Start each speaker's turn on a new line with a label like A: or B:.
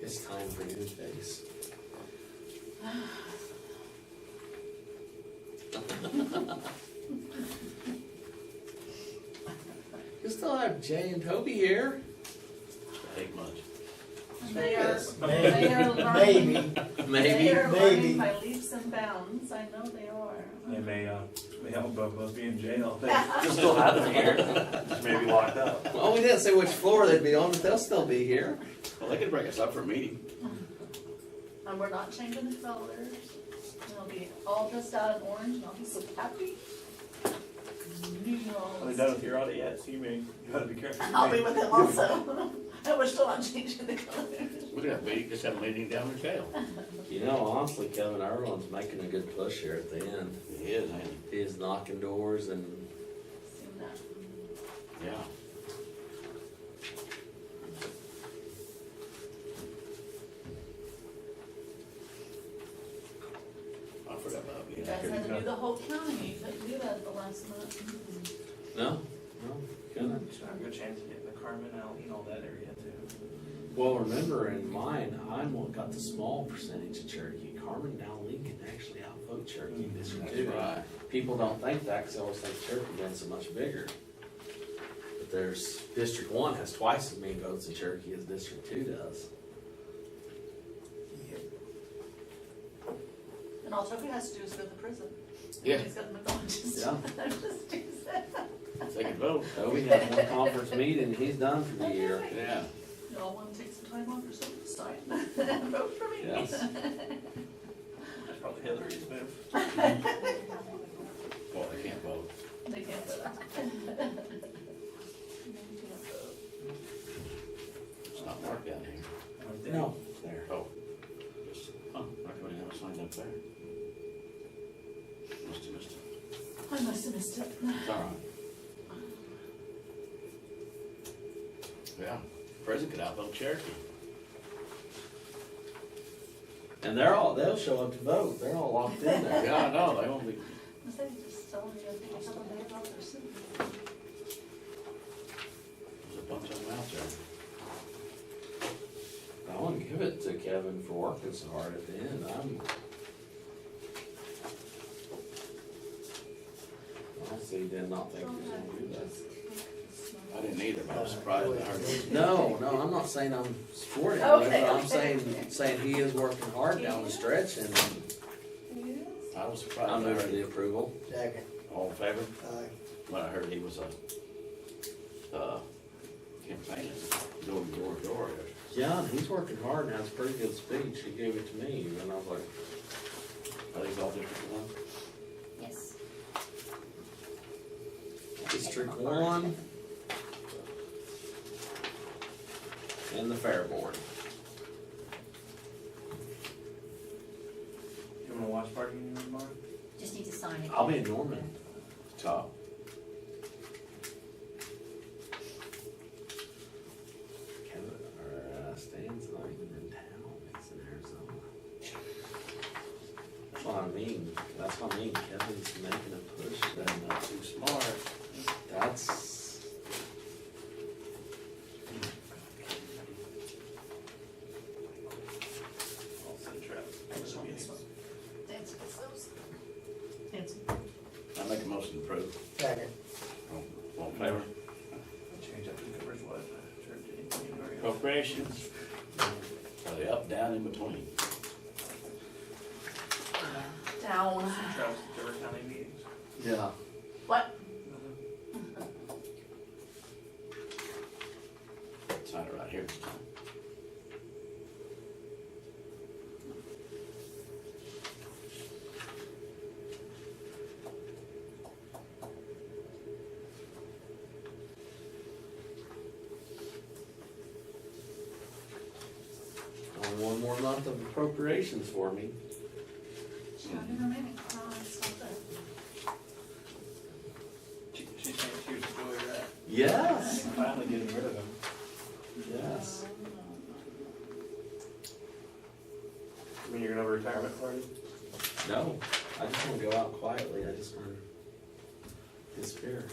A: It's time for new things. You still have Jay and Toby here.
B: Ain't much.
C: They are,
D: Maybe,
C: they are learning.
D: maybe,
C: They
A: Maybe.
C: are
D: maybe.
C: learning by leaps and bounds, I know they
E: They
C: are.
E: may, uh, may help both be in jail, they
B: Just still have them here.
E: may be locked up.
A: Well, we didn't say which floor they'd be on, but they'll still be here.
B: Well, they could break us up for a meeting.
C: And we're not changing the colors. They'll be all dressed out in orange and I'll be so happy.
E: Are they done with your audit yet? So you may, you gotta be careful.
C: I'll be with them also. And we're still not changing the colors.
B: We could have, we just have a meeting down in jail.
A: You know, honestly, Kevin Irwin's making a good push here at the end.
B: It is, ain't it?
A: He's knocking doors and
C: Soon enough.
B: Yeah. I forgot about
C: You
B: you.
C: guys had to do the whole county, you couldn't do that the last month.
A: no, no, couldn't.
E: It's not a good chance of getting the Carmen out and all that area too.
A: Well, remember in mine, I'm what got the small percentage of Cherokee. Carmen down Lincoln actually outvote Cherokee this year
E: Mm-hmm.
B: That's
A: too.
B: right.
A: People don't think that because they always think Cherokee been so much bigger. But there's, District One has twice as many votes in Cherokee as District Two does.
C: And all Toby has to do is go to prison.
B: Yeah.
C: He's got McDonald's.
A: Yeah.
C: Just do that.
B: They could vote.
A: Toby had one conference meeting, and he's done for the year.
B: Yeah.
C: Y'all wanna take some time off or something, sign, vote for me.
A: Yes.
E: That's probably Hillary's move.
B: Well, they can't vote.
C: They can't vote.
B: It's not marked down here.
A: No, there.
B: Oh. Just- Huh, I couldn't have it signed up there. Must have missed it.
C: I must have missed it.
B: It's all right. Yeah, prison could outvote Cherokee.
A: And they're all, they'll show up to vote. They're all locked in there.
B: Yeah, I know, they won't be.
C: Was they just telling you, I think, or something they about their city?
B: There's a bunch of them out there.
A: I want to give it to Kevin for working so hard at the end. I'm. Honestly, did not think he was gonna do that.
B: I didn't either, but I was surprised when I heard it.
A: No, no, I'm not saying I'm supporting him, but
C: Okay,
A: I'm
C: okay.
A: saying, saying he is working hard down the stretch and
C: Yes.
B: I was surprised.
A: I'm
B: when I
A: moving
B: heard
A: to the approval.
D: second,
B: All in favor?
D: aye.
B: When I heard he was a, uh, campaigning, door, to door, to door.
A: Yeah, and he's working hard and has a pretty good speech. He gave it to me and I was like,
B: Are these all different ones?
C: Yes.
A: District one. And the fair board.
E: You wanna watch party in your tomorrow?
F: Just need to sign it.
A: I'll be in Norman.
B: Top.
A: Kevin, or uh, Stan's not even in town, he's in Arizona. That's what I mean, that's what I mean, Kevin's making a push,
B: They're
A: and uh,
B: not too smart.
A: that's.
E: Mm-hmm. I'll send Travis.
C: That's on this one. That's, that's, that's.
B: I make a motion to approve.
D: second,
B: All- All in favor?
E: Change up the coverage, what, uh, turn to anything or-
B: Appropriations. Are they up, down, in between?
C: Down.
E: Travis, Dover County meetings.
A: Yeah.
C: What?
E: Mm-hmm.
B: Sign it right here.
A: Only one more month of appropriations for me.
C: Down in a minute. Oh, it's not there.
E: She, she's saying she was doing that.
A: Yes,
E: Finally getting rid of him.
A: yes.
C: Um,
E: I mean, you're gonna have a retirement party?
A: No, I just wanna go out quietly, I just wanna disappear.